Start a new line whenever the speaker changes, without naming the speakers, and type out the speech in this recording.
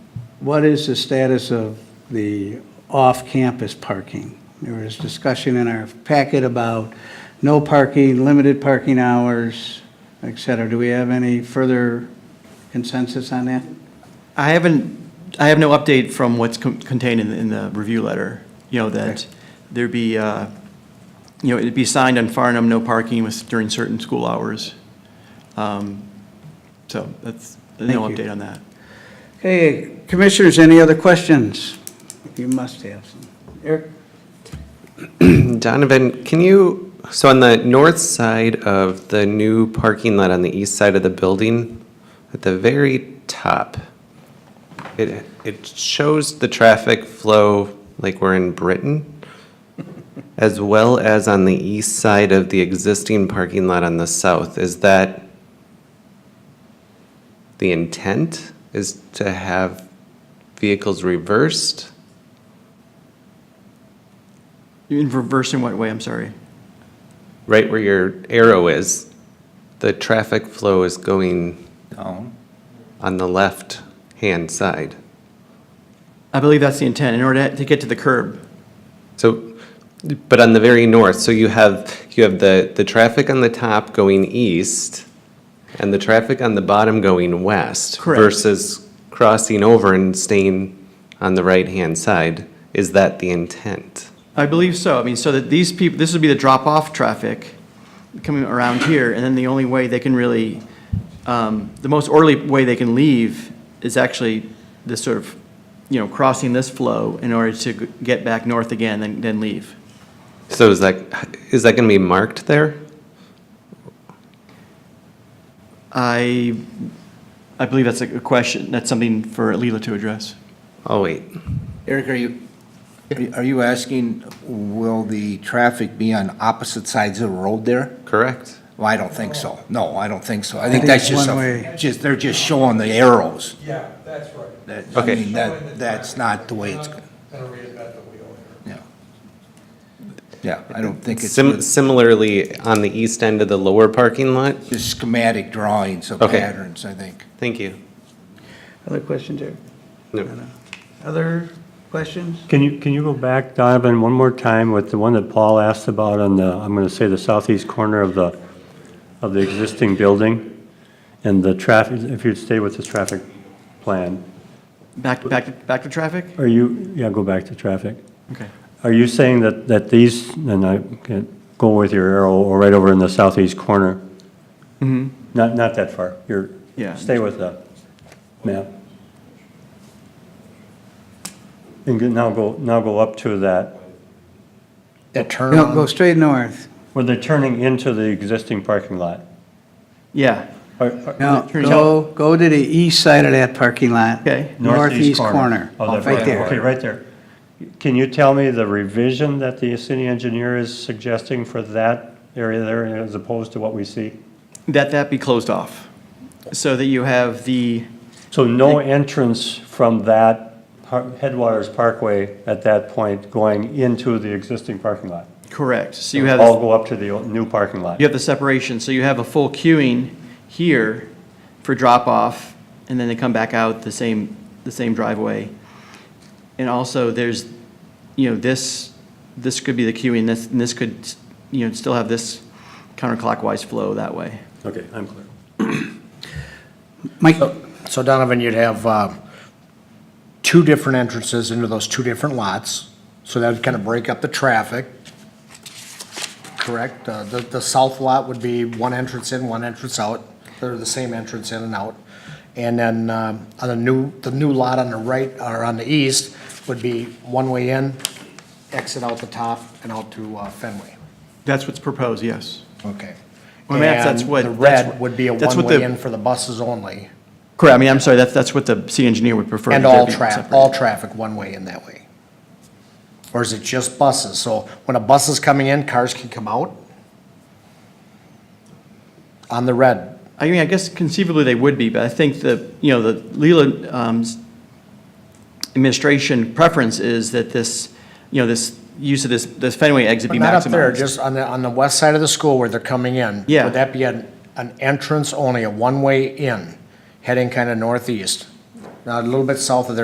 What is the status of the off-campus parking? There was discussion in our packet about no parking, limited parking hours, et cetera. Do we have any further consensus on that?
I haven't, I have no update from what's con- contained in, in the review letter, you know, that
Okay.
there'd be, uh, you know, it'd be signed on Farnham, no parking with- during certain school hours. Um, So that's, no
Thank you.
update on that.
Okay, commissioners, any other questions? You must have some. Eric?
Donovan, can you, so on the north side of the new parking lot on the east side of the building, at the very top, it, it shows the traffic flow like we're in Britain, as well as on the east side of the existing parking lot on the south. Is that the intent is to have vehicles reversed?
In reverse in what way, I'm sorry?
right where your arrow is, the traffic flow is going
Down.
on the left-hand side.
I believe that's the intent, in order to get to the curb.
So, but on the very north, so you have, you have the, the traffic on the top going east and the traffic on the bottom going west.
Correct.
Versus crossing over and staying on the right-hand side. Is that the intent?
I believe so. I mean, so that these people, this would be the drop-off traffic coming around here, and then the only way they can really, um, the most orderly way they can leave is actually this sort of, you know, crossing this flow in order to g- get back north again, then, then leave.
So is that, is that gonna be marked there?
I, I believe that's a question, that's something for Leela to address.
Oh, wait.
Eric, are you, are you asking, will the traffic be on opposite sides of the road there?
Correct.
Well, I don't think so. No, I don't think so. I
think
think that's
it's
just,
one
a-
way.
just, they're just showing the arrows.
Yeah, that's right.
That- I
Okay.
mean, that, that's not the way it's,
Not Gonna reinvent the wheel here.
yeah. Yeah, I don't think it's
Sim-
good.
Similarly, on the east end of the lower parking lot,
just schematic drawings of
Okay.
patterns, I think.
Thank you.
Other questions, Eric?
No.
Other questions?
Can you, can you go back, Donovan, one more time with the one that Paul asked about on the, I'm going to say the southeast corner of the, of the existing building? And the traffic, if you'd stay with this traffic plan,
Back, back, back to traffic?
are you, yeah, go back to traffic.
Okay.
Are you saying that, that these, and I can go with your arrow or right over in the southeast corner? Mm-hmm. Not, not that far, you're,
Yeah.
stay with the map. And go- now go, now go up to that.
The turn.
No, go straight north.
Where they're turning into the existing parking lot.
Yeah,
Are- are-
No,
Turns
go, go to the east side of that parking lot.
Okay.
Northeast corner,
Oh, that-
right
Okay,
there.
right there. Can you tell me the revision that the city engineer is suggesting for that area there as opposed to what we see?
that, that be closed off, so that you have the,
So no entrance from that par- Headwaters Parkway at that point going into the existing parking lot?
correct, so you have.
All go up to the o- new parking lot?
You have the separation, so you have a full queuing here for drop-off, and then they come back out the same, the same driveway. And also, there's, you know, this, this could be the queuing, this, and this could, you know, still have this counterclockwise flow that way.
Okay, I'm clear.
Mike?
So Donovan, you'd have uh, two different entrances into those two different lots, so that would kind of break up the traffic, correct? Uh, The, the south lot would be one entrance in, one entrance out, they're the same entrance in and out. And then um, on the new, the new lot on the right, or on the east, would be one way in, exit out the top and out to uh, Fenway.
That's what's proposed, yes.
Okay.
Well, that's- that's what-
And the
that's what-
red would be a
that's what
one-way
the-
in for the buses only,
Correct, I mean, I'm sorry, that's, that's what the city engineer would prefer.
And
that there
all
be
tra,
separate.
all traffic one way in that way? Or is it just buses? So when a bus is coming in, cars can come out? On the red,
I mean, I guess conceivably they would be, but I think the, you know, the Leland um, administration preference is that this, you know, this use of this, this Fenway exit
but
be
not up there,
maximized.
just on the, on the west side of the school where they're coming in.
Yeah.
Would that be an, an entrance only, a one-way in, heading kind of northeast? Now, a little bit south of there